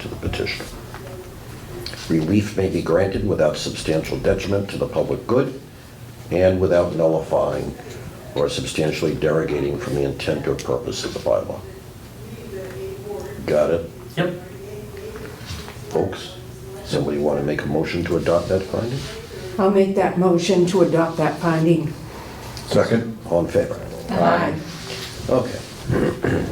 to the petitioner. Relief may be granted without substantial detriment to the public good and without nullifying or substantially derogating from the intent or purpose of the bylaw. Got it, Yep. folks? Somebody want to make a motion to adopt that finding? I'll make that motion to adopt that finding. Second. All in favor? Aye. Okay.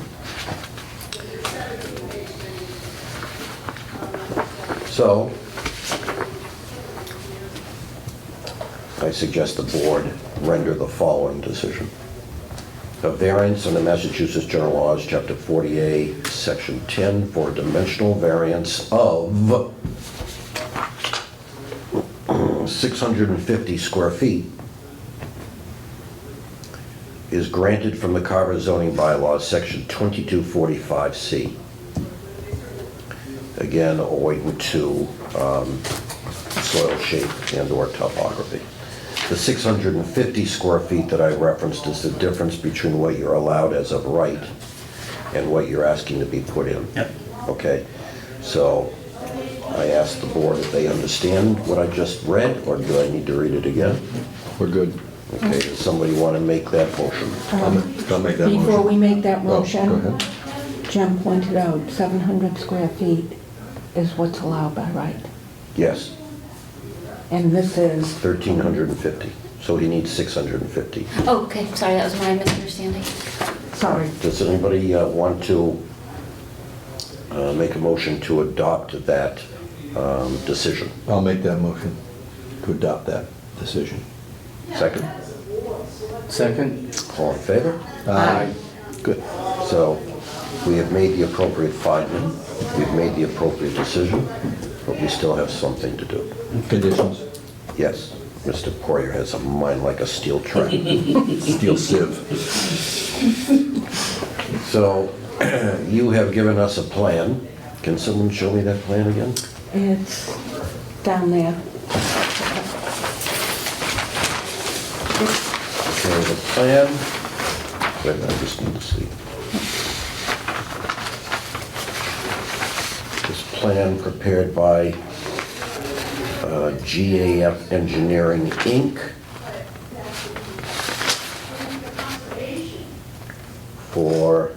So, I suggest the board render the following decision. A variance in the Massachusetts General Laws, Chapter 48, Section 10, for a dimensional variance of 650 square feet is granted from the Carver zoning bylaws, section 2245C. Again, owing to um, soil shape and/or topography. The 650 square feet that I referenced is the difference between what you're allowed as of right and what you're asking to be put in. Yep. Okay? So I asked the board if they understand what I just read, or do I need to read it again? We're good. Okay, does somebody want to make that motion? I'll ma- I'll make that motion. Um, Before we make that Oh, motion. Go ahead. Jim pointed out, 700 square feet is what's allowed by right. Yes, And this is, 1,350, so he needs 650. Oh, okay, sorry, that was my misunderstanding. sorry, Does anybody uh, want to uh, make a motion to adopt that um, decision? I'll make that motion to adopt that decision. Second? Second? All in favor? Aye. Good. So we have made the appropriate finding, we've made the appropriate decision, but we still have something to do. Conditions? Yes, Mr. Poirier has a mind like a steel trap. Steel sieve. So you have given us a plan. Can someone show me that plan again? it's down there. Okay, the plan, wait a minute, I just need to see. This plan prepared by uh, GAF Engineering, Inc. for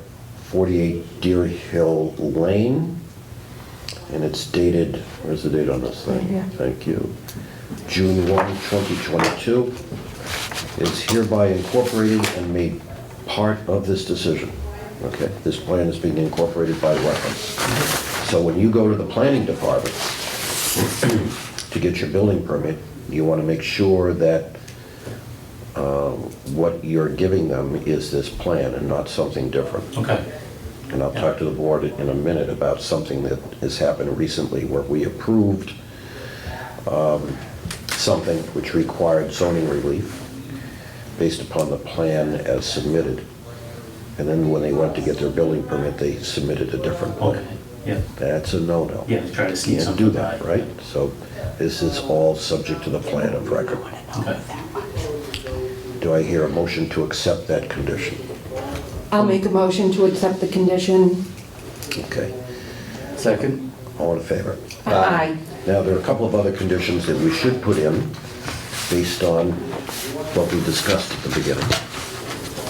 48 Deer Hill Lane, and it's dated, where's the date on this Right thing? here. Thank you. June 1, 2022 is hereby incorporated and made part of this decision. Okay, this plan is being incorporated by reference. So when you go to the planning department to get your building permit, you want to make sure that uh, what you're giving them is this plan and not something different. Okay. And I'll talk to the board in a minute about something that has happened recently where we approved um, something which required zoning relief based upon the plan as submitted. And then when they went to get their building permit, they submitted a different Okay, plan. yeah, That's a no-no. yeah, try to sneak Can't something do by. that, right? So this is all subject to the plan of record. Okay, Do I hear a motion to accept that condition? I'll make a motion to accept the condition. Okay, Second? all in favor? Aye. Now, there are a couple of other conditions that we should put in based on what we discussed at the beginning,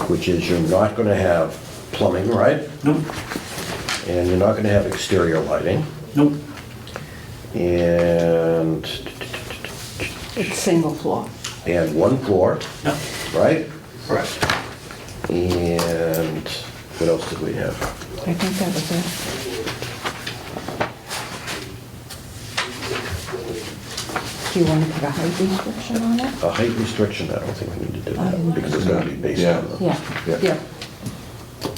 which is you're not going to have plumbing, right? nope, And you're not going to have exterior lighting. nope, And, It's single floor. and one floor, no, right? correct. And what else did we have? I think that was it. Do you want to put a height restriction on it? A height restriction, I don't think we need to do that because it's going to be based Yeah. on the... Yeah. Yeah. Yeah.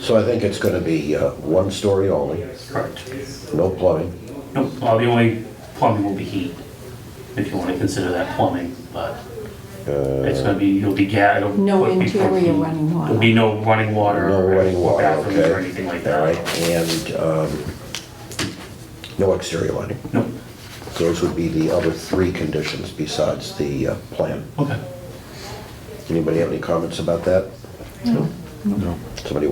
So I think it's going to be uh, one story only, Correct. no plumbing. Nope, well, the only plumbing will be heat, if you want to consider that plumbing, but Uh, it's gonna be, you'll be ga, it'll. No it'll be for interior heat. running water. There'll be no running water. No or- running or water, bathrooms okay. Or anything like All right, that. and um, no exterior lighting. Nope, Those would be the other three conditions besides the uh, plan. okay. Anybody have any comments about that? No. Somebody